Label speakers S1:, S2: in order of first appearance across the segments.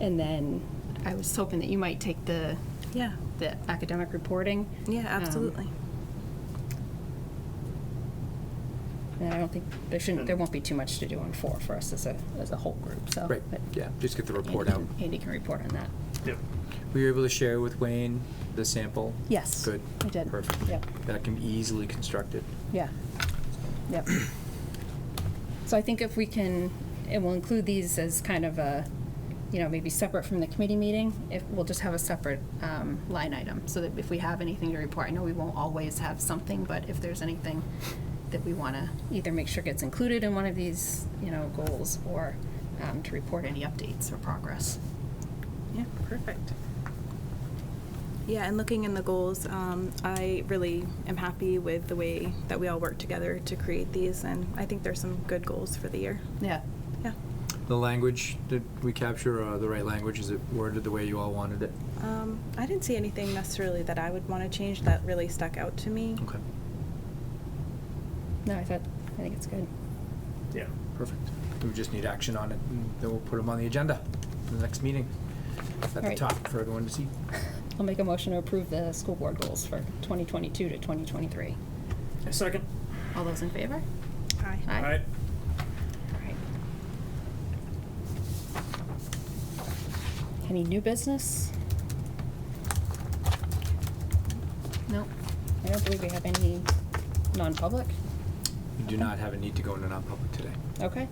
S1: And then I was hoping that you might take the,
S2: Yeah.
S1: the academic reporting.
S2: Yeah,
S1: Um,
S2: absolutely.
S1: And I don't think, there shouldn't, there won't be too much to do on four for us as a, as a whole group, so.
S3: Right,
S1: Oh, but
S3: yeah, just get the report
S1: Andy
S3: out.
S1: can- Andy can report on that.
S4: Yep.
S3: Were you able to share with Wayne the sample?
S1: Yes,
S3: Good.
S1: I did.
S3: Perfect.
S1: Yep.
S3: That can be easily constructed.
S1: Yeah. Yep. So I think if we can, and we'll include these as kind of a, you know, maybe separate from the committee meeting, if, we'll just have a separate um, line item, so that if we have anything to report, I know we won't always have something, but if there's anything that we want to either make sure gets included in one of these, you know, goals, or um, to report any updates or progress.
S2: Yeah, perfect. Yeah, and looking in the goals, um, I really am happy with the way that we all work together to create these, and I think there's some good goals for the year.
S1: Yeah.
S2: Yeah.
S3: The language, did we capture uh, the right language? Is it worded the way you all wanted it?
S2: Um, I didn't see anything necessarily that I would want to change that really stuck out to me.
S1: Mm-hmm.
S3: Okay,
S1: No, I thought, I think it's good.
S4: Yeah.
S3: perfect. We just need action on it, and then we'll put them on the agenda for the next meeting at the
S1: Right.
S3: top for everyone to see.
S1: I'll make a motion to approve the school board goals for 2022 to 2023.
S4: A second.
S1: All those in favor?
S2: Hi.
S1: Aye.
S4: All right.
S1: Alright. Any new business? No, I don't believe we have any non-public.
S3: We do not have a need to go into non-public today.
S1: Okay,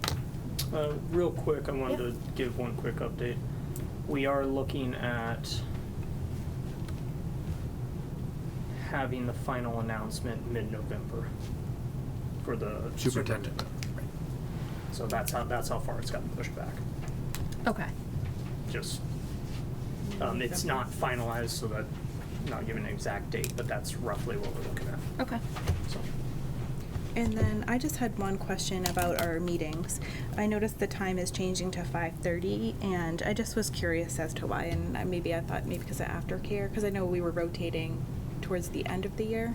S4: Uh, real quick, I wanted
S1: Yeah.
S4: to give one quick update. We are looking at having the final announcement mid-November for the
S3: Superintendent.
S4: So that's how that's how far it's gotten pushed back.
S1: okay.
S4: Just um, it's not finalized, so that not giving an exact date, but that's roughly what we're looking at.
S1: Okay.
S4: So
S2: And then I just had one question about our meetings. I noticed the time is changing to 5:30, and I just was curious as to why. And I- maybe I thought maybe because of aftercare, because I know we were rotating towards the end of the year.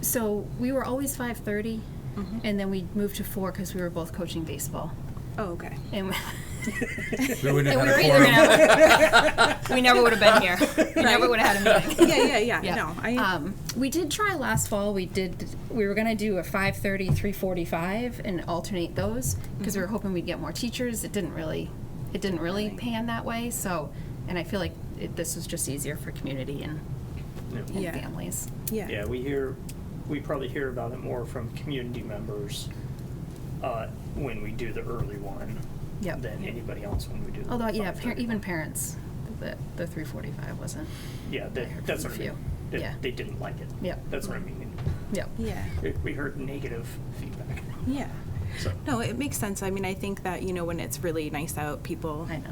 S1: So we were always five thirty,
S2: Mhm.
S1: and then we moved to four because we were both coaching baseball.
S2: Oh, okay.
S1: And we-
S3: We
S1: and
S3: wouldn't have
S1: we
S3: had
S1: were
S3: a
S1: either
S3: quorum.
S1: gonna- we never would have been here. We never
S2: Right.
S1: would have had a meeting.
S2: Yeah, yeah, yeah, no, I-
S1: um, we did try last fall. We did. We were gonna do a 5:30, 3:45, and alternate those because we were hoping we'd get more teachers. It didn't really. It didn't really
S2: Mm-hmm. Right.
S1: pan that way. So, and I feel like it, this was just easier for community and, and
S2: Yeah.
S1: families.
S2: Yeah.
S4: Yeah, we hear, we probably hear about it more from community members uh, when we do the early one
S1: Yep.
S4: than anybody else when we do. the
S1: Although, yeah, par-
S4: 5:30.
S1: even parents, the the 3:45 wasn't. I
S4: Yeah,
S1: heard
S4: that, that's
S1: from
S4: what
S1: a
S4: I
S1: few.
S4: mean. They-
S1: Yeah.
S4: They didn't like it.
S1: Yep.
S4: That's what I mean.
S1: Yep.
S2: Yeah.
S4: We- We heard negative feedback.
S2: Yeah.
S4: So,
S2: No, it makes sense. I mean, I think that, you know, when it's really nice out, people.
S1: I know.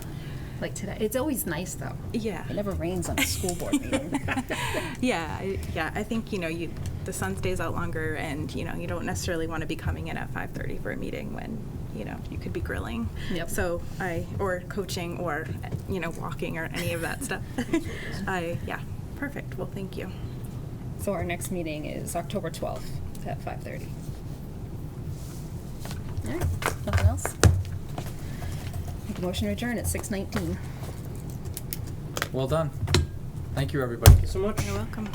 S1: Like today, it's always nice though.
S2: Yeah.
S1: It never rains on a school board meeting.
S2: Yeah, I, yeah, I think, you know, you, the sun stays out longer and, you know, you don't necessarily want to be coming in at 5:30 for a meeting when, you know, you could be grilling.
S1: Yep.
S2: So I, or coaching or, you know, walking or any of that stuff. I, yeah, perfect. Well, thank you.
S1: So our next meeting is October 12th at 5:30. All right, nothing else? Make a motion to adjourn at 6:19.
S3: Well done. Thank you, everybody.
S4: so much.
S2: You're welcome.